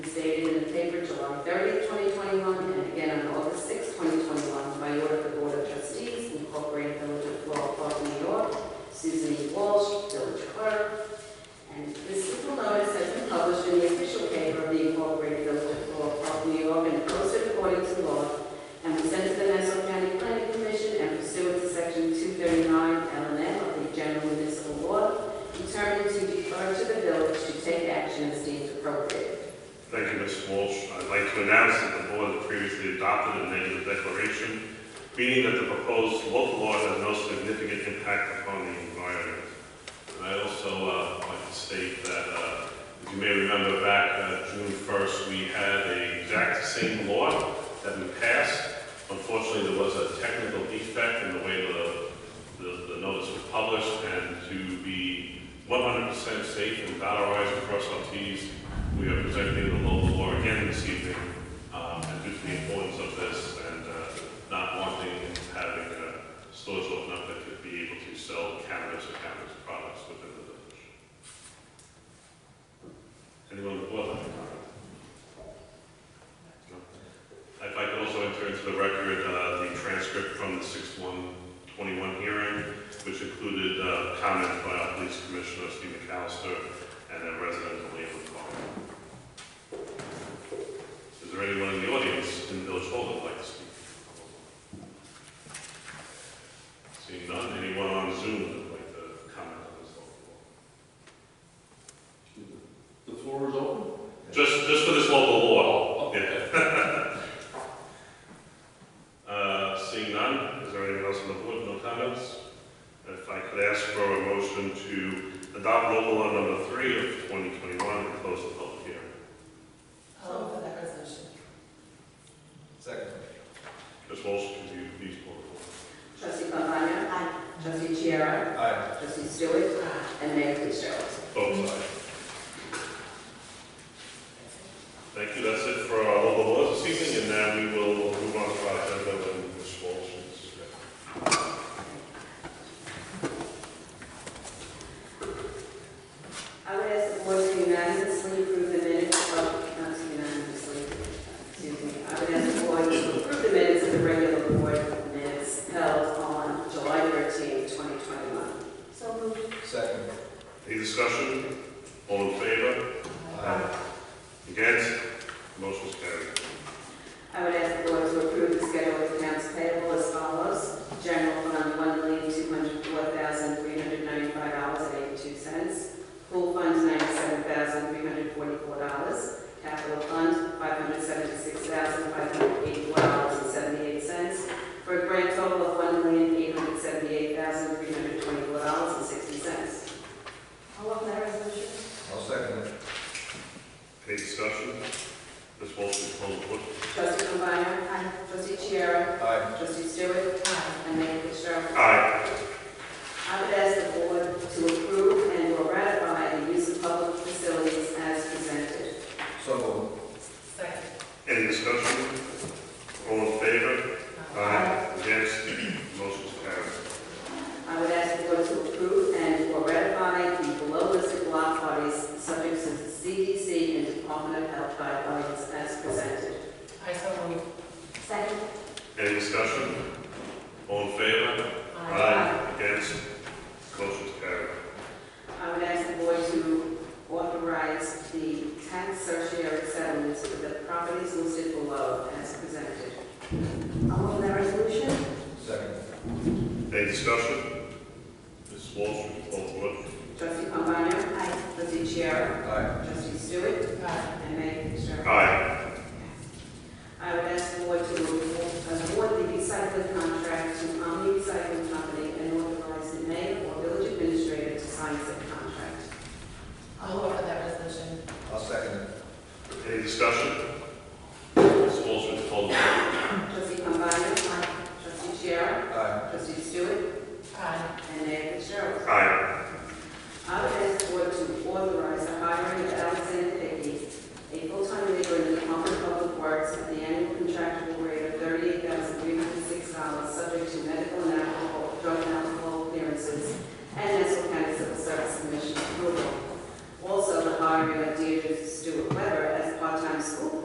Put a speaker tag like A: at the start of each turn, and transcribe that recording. A: stated in the paper July 30, 2021, and again on August 6, 2021, by order of the Board of Trustees, Incorporated Village of Floral Park, New York, Susan E. Walsh, Village Clerk. And this legal notice has been published in the official paper of the Incorporated Village of Floral Park, New York, and posted according to law, and was sent to the Nassau County Planning Commission and pursuant to Section 239 LNM of the General Municipal Law, determined to defer to the village to take action as deemed appropriate.
B: Thank you, Ms. Walsh. I'd like to announce that the board previously adopted a negative declaration, meaning that the proposed local law has no significant impact upon the environment. And I also uh, like to state that, uh, as you may remember back uh, June 1st, we had the exact same law that we passed. Unfortunately, there was a technical defect in the way the, the the notice was published, and to be 100% safe and dollarize across our Ts, we are presenting the local law again this evening, um, and due to the importance of this and uh, not wanting and having uh, stores open up that could be able to sell cannabis or cannabis products within the village. Anyone on the board like to comment? No? If I could also enter into the record uh, the transcript from the 6/1/21 hearing, which included uh, comments by our police commissioner, Steve McAllister, and a resident of Leland Farm. Is there anyone in the audience in Village Hall that would like to speak? Seeing none, anyone on Zoom that would like to comment on this local law?
C: The floor is open?
B: Just, just for this local law?
C: Oh,
B: Yeah. Uh, Seeing none, is there anyone else on the board, no comments? If I could ask for a motion to adopt local law number three of 2021 and close the public hearing.
D: I'll move for that resolution.
C: Second.
B: Ms. Walsh, could you please pull the board?
A: Trustee Pambana? Aye. Trustee Chiara?
C: Aye.
A: Trustee Stewart? And Mayor Fitzgerald.
B: Both sides. Thank you, that's it for our local laws this evening, and now we will move on to our agenda when Ms. Walsh is ready.
A: I would ask the board to unanimously approve the minutes of, not to unanimously, excuse me, I would ask the board to approve the minutes of the regular board minutes held on July 13, 2021.
D: So moved.
C: Second.
B: Any discussion? All in favor?
C: Aye.
B: Against? Motion's carried.
A: I would ask the board to approve the schedule of accounts payable as follows. General fund, one million, two hundred four thousand, three hundred ninety-five dollars and eighty-two cents. Pool funds, ninety-seven thousand, three hundred forty-four dollars. Capital fund, five hundred seventy-six thousand, five hundred eighty-four dollars and seventy-eight cents. For a grand total of one million, eight hundred seventy-eight thousand, three hundred twenty-four dollars and sixty cents.
D: I'll move for that resolution.
C: I'll second it.
B: Any discussion? Ms. Walsh, please poll the board.
A: Trustee Combiner? Aye. Trustee Chiara?
C: Aye.
A: Trustee Stewart?
D: Aye.
A: And Mayor Fitzgerald?
B: Aye.
A: I would ask the board to approve and or ratify the use of public facilities as presented.
C: So moved.
D: Second.
B: Any discussion? All in favor? Aye. Against? Motion's carried.
A: I would ask the board to approve and or ratify the below-listed block parties subject to the CDC and Department of Health guidelines as presented.
D: I so moved. Second.
B: Any discussion? All in favor? Aye. Against? Motion's carried.
A: I would ask the board to authorize the tax certiorari settlements for the properties listed below as presented.
D: I'll move that resolution.
C: Second.
B: Any discussion? Ms. Walsh, will you poll the board.
A: Trustee Pombana? Aye. Trustee Chiara?
C: Aye.
A: Trustee Stewart?
D: Aye.
A: And Mayor Fitzgerald?
B: Aye.
A: I would ask the board to uh, award the recycling contract to Omni Recycling Company and authorize the mayor or village administrator to sign said contract.
D: I'll move for that resolution.
C: I'll second it.
B: Any discussion? Ms. Walsh, will you poll the board.
A: Trustee Cambani? Aye. Trustee Chiara?
C: Aye.
A: Trustee Stewart?
D: Aye.
A: And Mayor Fitzgerald?
B: Aye.
A: I would ask the board to authorize the hiring of Alexander Dickey, a full-time labor in the Department of Public Works at the annual contractual rate of thirty-eight thousand three hundred six dollars, subject to medical and alcohol, drug and alcohol clearances, and Nassau County Civil Service Commission approval. Also, the hiring of Deirdre Stewart Weber as part-time School Board